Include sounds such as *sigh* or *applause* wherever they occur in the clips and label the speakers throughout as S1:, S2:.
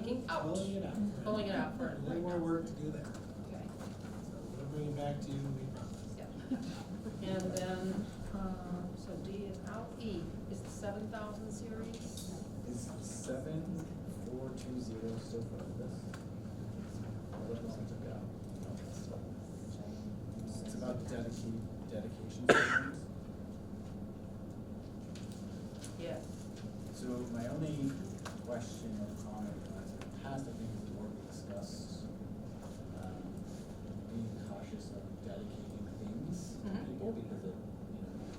S1: pulling it out.
S2: Pulling it out for.
S1: Way more work to do that.
S2: Okay.
S1: So we'll bring it back to you, we promise.
S2: Yep. And then, um, so D is out, E is the seven thousand series.
S3: Is seven four two zero still part of this? Or What else I took out? No, that's not- It's about dedicate, dedication systems.
S2: Yes.
S3: So my only question or comment was, in the past, I think the board discussed, um, being cautious of dedicating things to
S2: Mhm.
S3: people because it, you know, it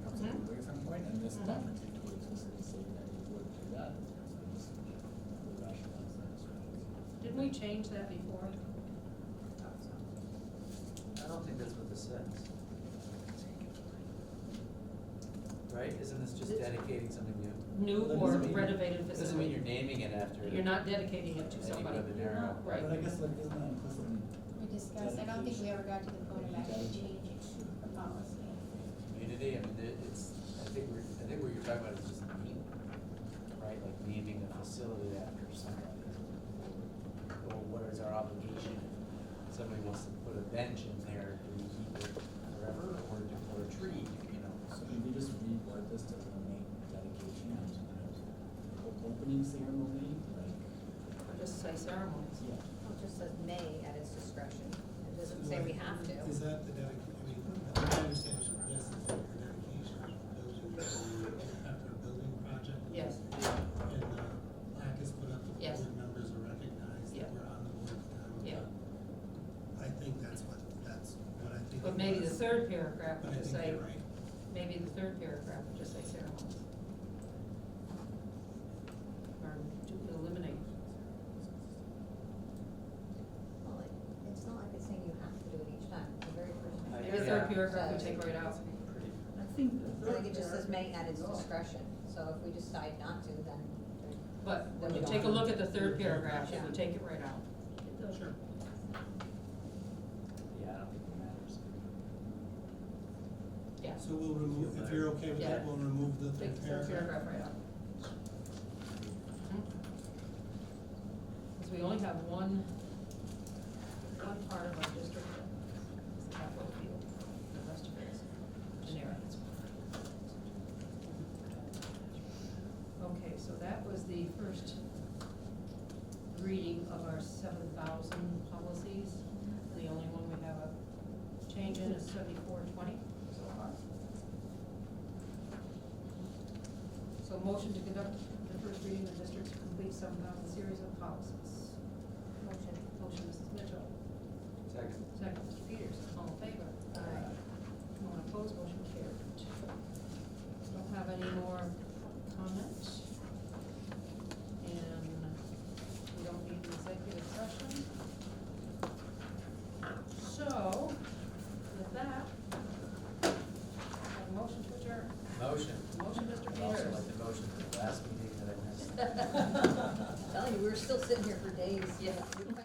S3: becomes
S2: Mhm.
S3: illegal at some point, and this
S2: Mhm.
S3: document explicitly saying that you would do that, so I just would rationalize that as well.
S2: Didn't we change that before?
S4: I don't think that's what this says. Right, isn't this just
S2: This-
S4: dedicating something new?
S2: New
S3: That
S2: or
S3: doesn't mean-
S2: renovated
S4: It Doesn't mean
S2: facility.
S4: you're naming it after.
S2: You're not dedicating it to
S4: Any
S2: somebody.
S4: brother there.
S2: Right.
S3: But I guess like, isn't that implicitly?
S5: We discussed, I don't think we ever got to the point of actually changing the policy.
S4: Community, I mean, it- it's, I think we're, I think what you're talking about is just naming, right, like naming a facility after somebody. Or what is our obligation, if somebody wants to put a bench in there, do we keep it forever, or do we put a tree, you know?
S3: So maybe just reword this to eliminate dedication and o- opening ceremony, like,
S2: Or Just say ceremonies.
S3: yeah.
S6: Well, It just says may at its discretion. It doesn't
S1: So
S6: say we
S1: like,
S6: have to.
S1: Is that the dedication, I mean, I understand it's this is the dedication of building, uh, after a building project.
S2: Yes.
S1: And uh, LAC has put up the
S2: Yes.
S1: board members are recognized
S2: Yeah.
S1: that we're on the board at the time.
S2: Yeah.
S1: I think that's what, that's what I think.
S2: But
S1: it
S2: maybe the
S1: was.
S2: third paragraph
S1: But
S2: would
S1: I
S2: just
S1: think
S2: say,
S1: you're right.
S2: maybe the third paragraph would just say ceremonies. Or to eliminate.
S6: Well, it- it's not like it's saying you have to do it each time. The very first.
S4: I-
S2: Maybe the
S4: yeah.
S2: third paragraph would take right out.
S6: I think. I think it just says may at its discretion. So if we decide not to, then. there-
S2: But
S6: then we
S2: when you
S6: don't
S2: take a
S6: have-
S2: look at the third paragraph, it
S6: Yeah.
S2: would take it right out.
S1: Sure.
S4: Yeah, I don't think it matters.
S2: Yeah.
S1: So we'll remove, if you're okay with that,
S2: Yeah.
S1: we'll remove the
S2: Take
S1: third
S2: the third
S1: paragraph.
S2: paragraph right out. Because we only have one, one part of our district that is the capital field, the rest of it is generic. Okay, so that was the first reading of our seven thousand policies. The only one we have a change in is seventy-four twenty.
S3: So, uh,
S2: So motion to conduct the first reading of district's complete seven thousand series of policies.
S6: Motion. *laughs*
S2: Motion, Mrs. Mitchell.
S4: Second.
S2: Second, Mr. Peters, all in favor?
S6: Aye.
S2: No one opposed, motion carried. Don't have any more comments. And we don't need an executive session. So, with that, a motion to adjourn.
S4: Motion.
S2: Motion, Mr.
S4: I'd also
S2: Peters.
S4: like to motion for the last meeting that I missed.
S6: I'm Telling you, we were still sitting here for days.
S2: Yeah.
S6: We-